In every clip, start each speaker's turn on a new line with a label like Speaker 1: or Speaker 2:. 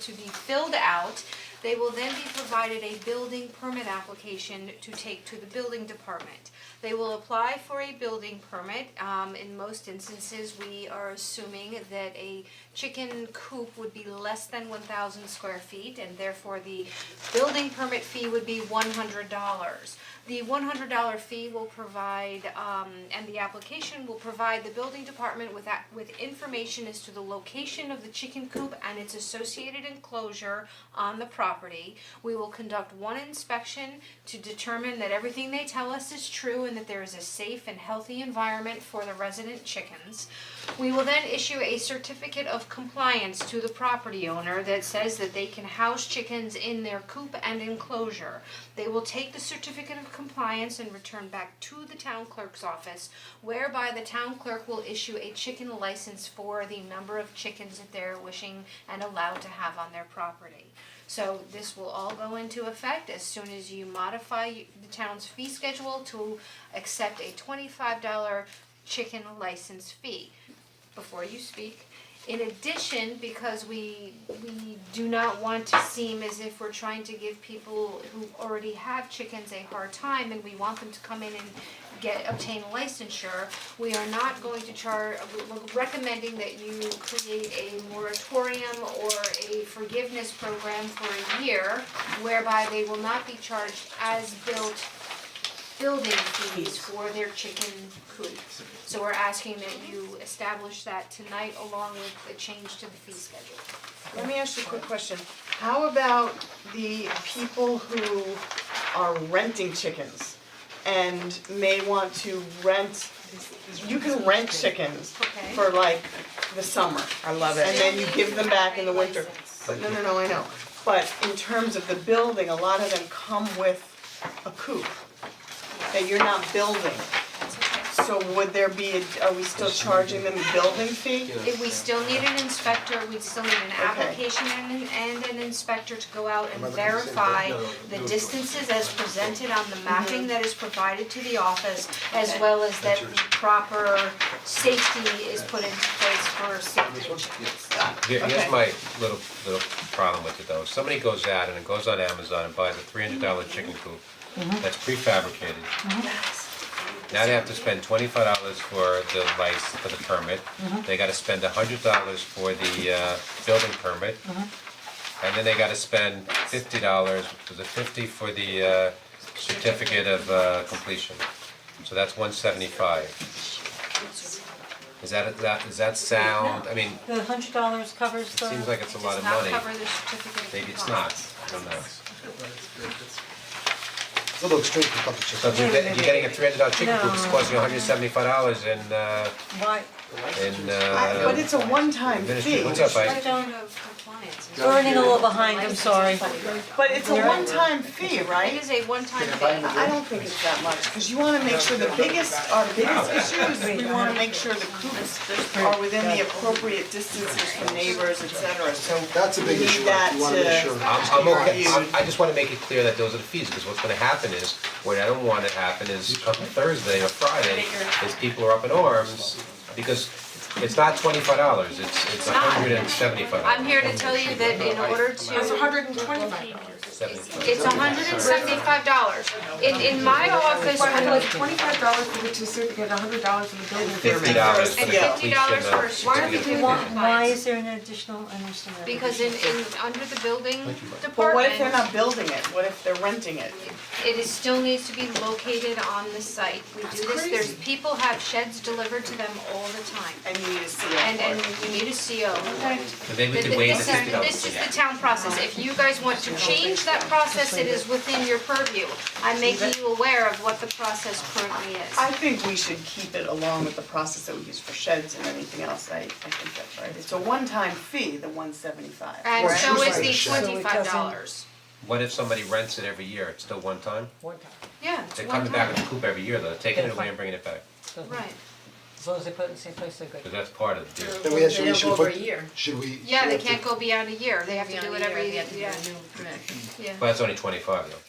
Speaker 1: to be filled out. They will then be provided a building permit application to take to the building department. They will apply for a building permit. Um, in most instances, we are assuming that a chicken coop would be less than one thousand square feet and therefore the building permit fee would be one hundred dollars. The one hundred dollar fee will provide, um, and the application will provide the building department with that, with information as to the location of the chicken coop and its associated enclosure on the property. We will conduct one inspection to determine that everything they tell us is true and that there is a safe and healthy environment for the resident chickens. We will then issue a certificate of compliance to the property owner that says that they can house chickens in their coop and enclosure. They will take the certificate of compliance and return back to the town clerk's office, whereby the town clerk will issue a chicken license for the number of chickens that they're wishing and allowed to have on their property. So this will all go into effect as soon as you modify the town's fee schedule to accept a twenty-five dollar chicken license fee before you speak. In addition, because we we do not want to seem as if we're trying to give people who already have chickens a hard time and we want them to come in and get obtain licensure, we are not going to charge, we're recommending that you create a moratorium or a forgiveness program for a year whereby they will not be charged as built building fees for their chicken coop. So we're asking that you establish that tonight along with a change to the fee schedule.
Speaker 2: Let me ask you a quick question. How about the people who are renting chickens and may want to rent, you can rent chickens
Speaker 1: Okay.
Speaker 2: for like the summer. I love it. And then you give them back in the winter.
Speaker 1: License.
Speaker 2: But no, no, no, I know. But in terms of the building, a lot of them come with a coop that you're not building.
Speaker 1: That's okay.
Speaker 2: So would there be, a- are we still charging them a building fee?
Speaker 1: If we still need an inspector, we still need an application and and an inspector to go out and verify the distances as presented on the mapping that is provided to the office, as well as that the proper safety is put into place for safety chickens.
Speaker 3: Here,
Speaker 2: Okay.
Speaker 3: here's my little, little problem with it though, if somebody goes out and it goes on Amazon and buys a three hundred dollar chicken coop that's prefabricated, now they have to spend twenty-five dollars for the license, for the permit, they gotta spend hundred dollars for the uh building permit. And then they gotta spend fifty dollars, was it fifty for the uh certificate of uh completion, so that's one seventy-five. Is that, is that, is that sound, I mean,
Speaker 4: The hundred dollars covers the.
Speaker 3: Seems like it's a lot
Speaker 1: Does
Speaker 3: of
Speaker 1: not
Speaker 3: money,
Speaker 1: cover the certificate of
Speaker 3: maybe it's not,
Speaker 1: compliance.
Speaker 3: I don't know.
Speaker 5: It's a little extreme for public
Speaker 3: So if you're
Speaker 4: Wait a
Speaker 3: get- if you're getting a three hundred dollar chicken coop, it's
Speaker 4: No.
Speaker 3: costing you hundred and seventy five dollars in uh,
Speaker 4: Why,
Speaker 3: in
Speaker 2: I- But
Speaker 3: uh,
Speaker 2: it's a one-time
Speaker 3: ministry,
Speaker 2: fee.
Speaker 3: what's up,
Speaker 1: I
Speaker 3: Ike?
Speaker 1: don't know if compliance is.
Speaker 4: we're running a little behind, I'm sorry.
Speaker 2: But it's a one-time fee,
Speaker 1: It
Speaker 2: right?
Speaker 1: is a one-time thing.
Speaker 2: I don't think it's that much, because you wanna make sure the biggest, our biggest issue is we wanna make sure the coops are within the appropriate distances from neighbors, et cetera, so.
Speaker 5: That's a big
Speaker 2: we need
Speaker 5: issue,
Speaker 2: that
Speaker 5: right? you wanna make
Speaker 2: to-
Speaker 5: sure.
Speaker 3: I'm I'm okay,
Speaker 2: You-
Speaker 3: I'm- I just wanna make it clear that those are the fees, because what's gonna happen is, what I don't wanna happen is come Thursday or Friday, is people are up in arms, because it's not twenty five dollars, it's it's hundred and seventy five dollars.
Speaker 1: I'm here to tell you that in order to. That's hundred and twenty-five dollars. It's hundred and seventy-five dollars. In, in my office,
Speaker 6: Well,
Speaker 1: when
Speaker 6: like twenty-five dollars for the certificate, a hundred dollars for the building permit.
Speaker 3: Fifty dollars for the
Speaker 1: And
Speaker 2: Yeah.
Speaker 1: fifty
Speaker 3: completion
Speaker 1: dollars
Speaker 3: of-
Speaker 1: for a
Speaker 6: Why don't we
Speaker 3: certificate.
Speaker 6: do
Speaker 4: Why,
Speaker 6: that?
Speaker 4: why is there an additional, I understand that.
Speaker 1: because in, in, under the building department.
Speaker 2: But what if they're not building it, what if they're renting it?
Speaker 1: It is still needs to be located on the site. We do this, there's, people have sheds delivered to them all the time.
Speaker 2: And you need to see it.
Speaker 1: And, and you need a CO.
Speaker 3: But they would
Speaker 1: Th-
Speaker 3: do way
Speaker 1: th-
Speaker 3: the
Speaker 1: This
Speaker 3: fifty
Speaker 1: is,
Speaker 3: dollars.
Speaker 1: this is the town process, if you guys want to change that process, it is within your purview. I'm making you aware of what the process currently
Speaker 2: I
Speaker 1: is.
Speaker 2: think we should keep it along with the process that we use for sheds and anything else, I, I think that's right. It's a one-time fee, the one seventy-five.
Speaker 1: And
Speaker 5: Right.
Speaker 1: so is the
Speaker 5: So it
Speaker 1: twenty-five dollars.
Speaker 3: What if somebody rents it every year, it's still one time?
Speaker 6: One time,
Speaker 1: Yeah, it's
Speaker 3: They're
Speaker 1: one
Speaker 3: coming back with
Speaker 1: time,
Speaker 3: the coop every year though, taking it away and bringing it back,
Speaker 6: doesn't-
Speaker 1: right.
Speaker 6: As long as they put it in the same place, they're good.
Speaker 3: because that's part of the deal.
Speaker 5: Then we actually, we
Speaker 7: They don't
Speaker 5: should
Speaker 7: go over
Speaker 5: put,
Speaker 7: a year.
Speaker 5: should we?
Speaker 1: Yeah, they
Speaker 5: should we
Speaker 1: can't go beyond a year, they have to
Speaker 7: Beyond
Speaker 1: do
Speaker 7: a
Speaker 1: it
Speaker 7: year,
Speaker 1: every,
Speaker 7: they have to do
Speaker 1: yeah,
Speaker 7: a new permit.
Speaker 1: yeah.
Speaker 3: But that's only twenty-five though.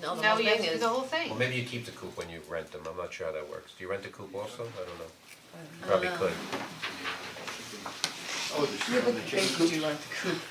Speaker 7: No, the
Speaker 1: No,
Speaker 7: whole
Speaker 1: you have
Speaker 7: thing
Speaker 1: to do
Speaker 7: is,
Speaker 1: the whole thing.
Speaker 3: Well, maybe you keep the coop when you rent them, I'm not sure how that works. Do you rent the coop also? I don't know. Probably could.
Speaker 5: have- Oh, the-
Speaker 2: They do like the coop.